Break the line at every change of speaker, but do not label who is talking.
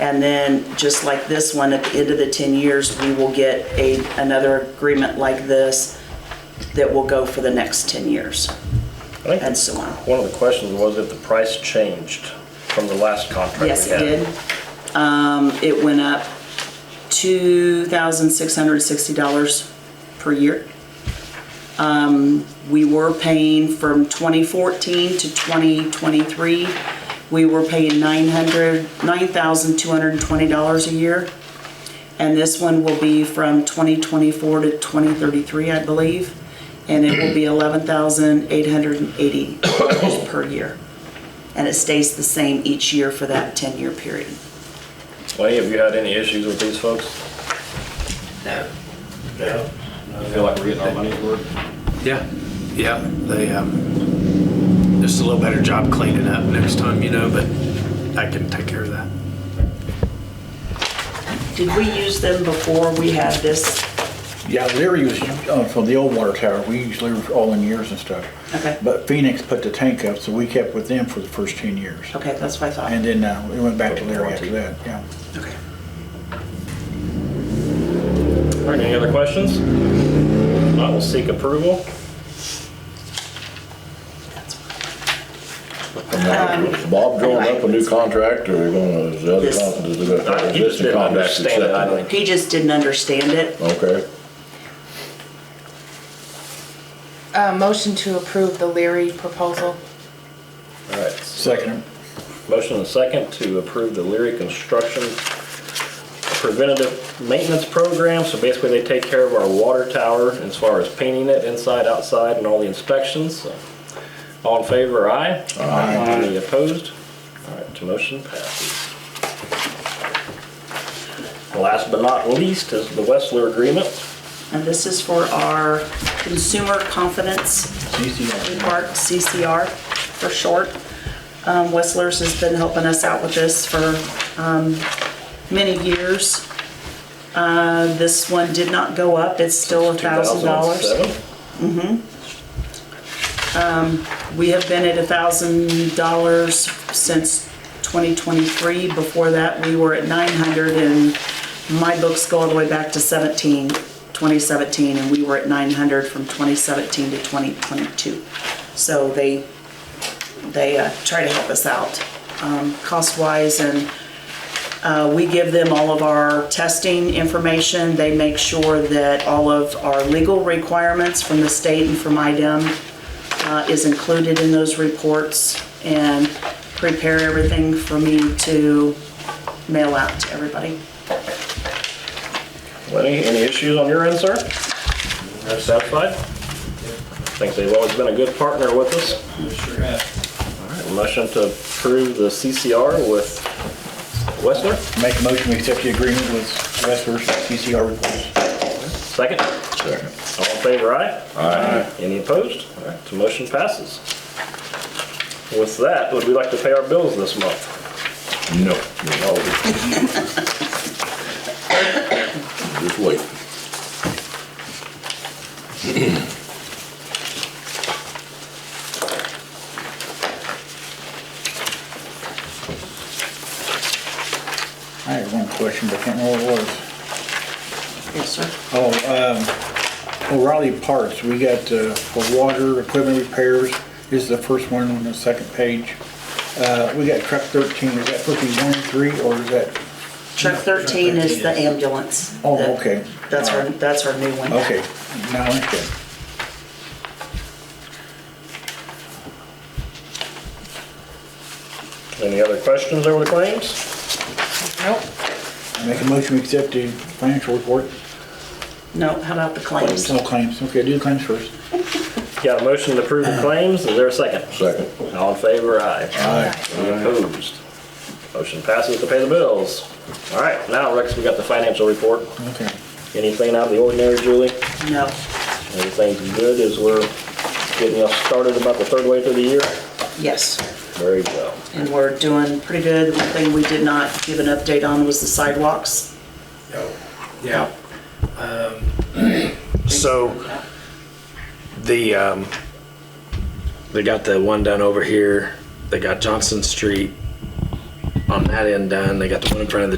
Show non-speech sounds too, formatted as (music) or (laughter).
And then, just like this one, at the end of the 10 years, we will get a, another agreement like this that will go for the next 10 years
I
and
think
so on.
one of the questions was if the price changed from the last contract we had.
Yes, it did. Um, It went up $2,660 per year. Um, We were paying from 2014 to 2023, we were paying 900 $9,220 a year. And this one will be from 2024 to 2033, I believe, and it will be $11,880 per year and it stays the same each year for that 10-year period.
Lenny, have you had any issues with these folks?
No.
No. I feel like we're getting our money's worth.
Yeah, yeah, they, um, just a little better job cleaning up next time, you know, but I can take care of that.
Did we use them before we had this?
Yeah, Leary was, uh, from the old water tower, we used Leary for all in years and stuff.
Okay.
But Phoenix put the tank up, so we kept with them for the first ten years.
Okay, that's what I thought.
And then, uh, we went back to Leary after that, yeah.
Okay.
All right, any other questions? If Not, we'll seek approval.
That's what-
Um,
Bob drawing up a new contract, or we're gonna, is the other
Yes.
con- is the
I- He just
existing
didn't
contract
understand it, I think.
accepted?
He just didn't understand it.
Okay,
Uh, motion to approve the Leary proposal.
All right,
Second,
motion and second to approve the Leary Construction Preventative Maintenance Program. So basically, they take care of our water tower as far as painting it inside, outside, and all the inspections. All in favor, aye? Aye. Any opposed? All right, motion passes. Last but not least is the Westler Agreement.
And this is for our Consumer Confidence
CCR.
Park, CCR for short. Um, Westlers has been helping us out with this for um, many years. Uh, This one did not go up, it's still a thousand dollars.
2007.
We have been at thousand dollars since 2023. Before that, we were at 900 and my books go all the way back to 17, 2017, and we were at 900 from 2017 to 2022. So they, they uh, try to help us out um, cost-wise and uh, we give them all of our testing information. They make sure that all of our legal requirements from the state and from E IDEM uh, is included in those reports and prepare everything for me to mail out to everybody.
Lenny, any issues on your end, sir? Are you satisfied? I think they've always been a good partner with us. All right, motion to approve the CCR with Westler,
Make a motion, we accept the agreement with Westers, CCR reports.
second.
second.
All in favor, aye?
Aye.
Any opposed? All right, so motion passes. With that, would we like to pay our bills this month?
No. no. Just wait.
I had one question, but I can't remember what it was.
Yes, sir.
Oh, um, O'Reilly Parts, we got, uh, for water, equipment repairs, this is the first one on the second page. Uh, we got truck thirteen, is that supposed to be one, three, or is that,
Truck 13 is the ambulance.
Oh, okay.
That's our, that's our new one.
okay, now, okay.
Any other questions over the claims?
Nope.
Make a motion, we accept the financial report,
No, how about the claims?
all claims, okay, do the claims first.
Got a motion to approve the claims, is there a second?
Second.
All in favor, aye? Any opposed? Motion passes to pay the bills. All right, now, Rex, we got the financial report.
Okay,
Anything out of the ordinary, Julie?
No.
Everything's good as we're getting us started about the third way through the year?
Yes.
Very well.
And we're doing pretty good. The one thing we did not give an update on was the sidewalks.
Yeah. Um, (clears throat) So, the, um, they got the one done over here, they got Johnson Street
on that end done. They got the one in front of the